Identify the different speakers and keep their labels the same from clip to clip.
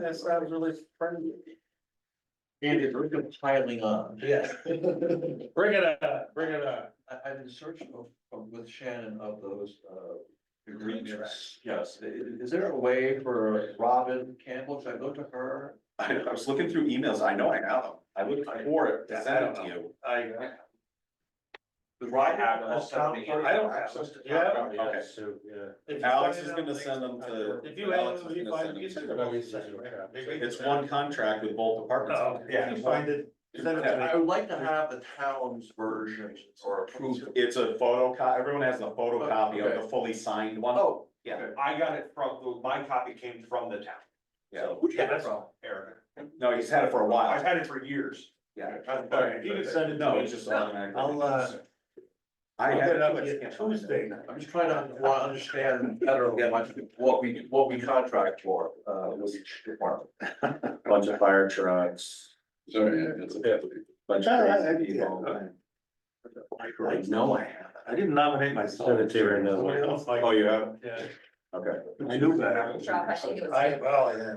Speaker 1: that sounds really friendly.
Speaker 2: Andy, we're gonna piling on.
Speaker 1: Yes. Bring it up, bring it up.
Speaker 2: I, I've been searching of- of- with Shannon of those, uh, agreements. Yes, I- i- is there a way for Robin Campbell? Should I go to her?
Speaker 3: I, I was looking through emails, I know I have them, I looked for it, to send it to you.
Speaker 1: I,
Speaker 2: With Robin?
Speaker 3: have
Speaker 2: uh,
Speaker 3: those
Speaker 2: something-
Speaker 3: down. I don't have those.
Speaker 1: yeah.
Speaker 3: Okay.
Speaker 1: If you
Speaker 3: Alex
Speaker 1: find
Speaker 3: is
Speaker 1: it
Speaker 3: gonna
Speaker 1: on
Speaker 3: send them to.
Speaker 1: LinkedIn. If you have,
Speaker 3: Alex is
Speaker 1: them, you
Speaker 3: gonna
Speaker 1: find,
Speaker 3: send
Speaker 1: you
Speaker 3: them
Speaker 1: send
Speaker 3: to-
Speaker 1: them all, you send them.
Speaker 3: It's one contract with both
Speaker 1: Oh,
Speaker 3: departments.
Speaker 1: if you find it, send it to me.
Speaker 2: I would like to have the town's version or approved.
Speaker 3: It's a photocopy, everyone has a photocopy of
Speaker 2: Okay.
Speaker 3: the fully signed one.
Speaker 2: Oh,
Speaker 3: Yeah.
Speaker 4: I got it from, my copy came from the town.
Speaker 3: Yeah,
Speaker 2: Who'd you get that from?
Speaker 4: Eric.
Speaker 3: no, he's had it for a
Speaker 4: I've
Speaker 3: while,
Speaker 4: had it for years.
Speaker 3: yeah.
Speaker 1: Alright, you can send it
Speaker 3: No,
Speaker 1: to
Speaker 3: it's
Speaker 1: me.
Speaker 3: just automatic.
Speaker 1: I'll, uh,
Speaker 3: I
Speaker 1: I'll
Speaker 3: had
Speaker 1: get
Speaker 3: it.
Speaker 1: it up
Speaker 3: but I
Speaker 1: again
Speaker 3: can't find it.
Speaker 1: Tuesday.
Speaker 2: I'm just trying to well, understand better what, what we, what we contract for, uh, with each department.
Speaker 3: Bunch of fire trucks.
Speaker 5: Sorry, that's
Speaker 1: Yeah.
Speaker 5: a.
Speaker 3: Bunch
Speaker 1: No, I- I-
Speaker 3: of crazy
Speaker 1: yeah,
Speaker 3: people.
Speaker 2: I know I have.
Speaker 1: I didn't nominate myself.
Speaker 5: Send it to her now.
Speaker 1: Somebody else like.
Speaker 3: Oh, you have,
Speaker 1: Yeah.
Speaker 3: okay.
Speaker 1: I knew that.
Speaker 6: Rob, I think it was.
Speaker 1: I, well, yeah.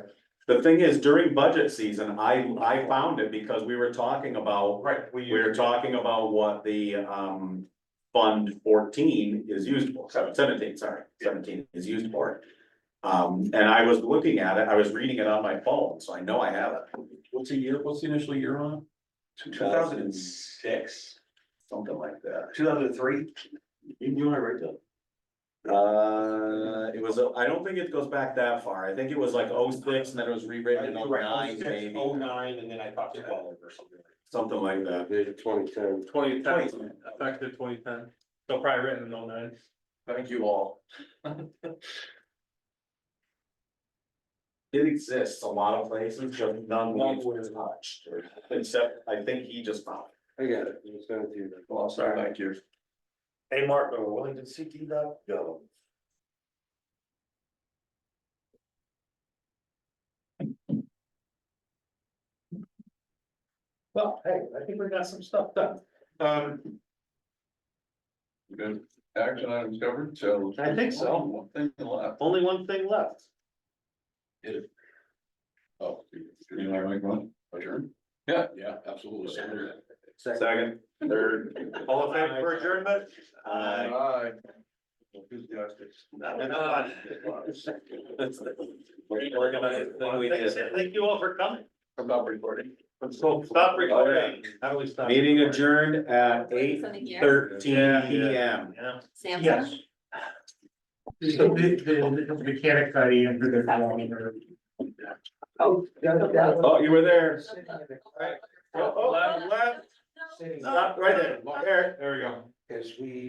Speaker 3: The thing is, during budget season, I, I found it because we were talking about,
Speaker 4: Right, we.
Speaker 3: we were talking about what the, um. Fund fourteen is used for, sorry, seventeen, sorry, seventeen is used for. Um, and I was looking at it, I was reading it on my phone, so I know I have it. What's the year, what's the initial year on?
Speaker 2: Two thousand and six,
Speaker 3: Something like that.
Speaker 2: two thousand and three?
Speaker 3: You want to write that? Uh, it was, uh, I don't think it goes back that far, I think it was like oh six and then it was rewritten in oh nine, maybe,
Speaker 4: Oh nine, and then I thought twelve or something.
Speaker 3: something like that.
Speaker 5: Twenty ten.
Speaker 1: Twenty
Speaker 3: ten,
Speaker 1: effective twenty ten, so probably written in oh nine.
Speaker 2: Thank you all.
Speaker 3: It exists a lot of places, just none
Speaker 4: None
Speaker 3: we've touched, except I think he just found it.
Speaker 5: I got it. Just send it to you.
Speaker 2: Well, sorry, thank you.
Speaker 1: Hey, Mark, we're willing to seek you up, go. Well, hey, I think we got some stuff done. Um,
Speaker 5: Good. Action items covered, so.
Speaker 1: I think so.
Speaker 5: One thing left.
Speaker 1: only one thing left.
Speaker 5: Oh, you know, I make one, adjourn? Yeah, yeah, absolutely.
Speaker 3: Second, third.
Speaker 1: All in favor for adjournment?
Speaker 3: Uh,
Speaker 2: Bye. Enthusiastic.
Speaker 3: we're gonna, then we
Speaker 1: Thanks,
Speaker 3: did.
Speaker 1: Thank you all for coming.
Speaker 2: I'm not recording.
Speaker 1: Stop recording. How do we stop?
Speaker 3: meeting adjourned at eight
Speaker 6: Something here?
Speaker 3: thirteen P M.
Speaker 1: Yeah.
Speaker 6: Samsung?
Speaker 1: Yes. The, the, the mechanic guy entered their
Speaker 6: phone
Speaker 1: Oh,
Speaker 3: Oh, you were there.
Speaker 1: Oh, oh, left, left.
Speaker 6: No.
Speaker 3: Stop right there, there.
Speaker 1: There we go.
Speaker 2: As we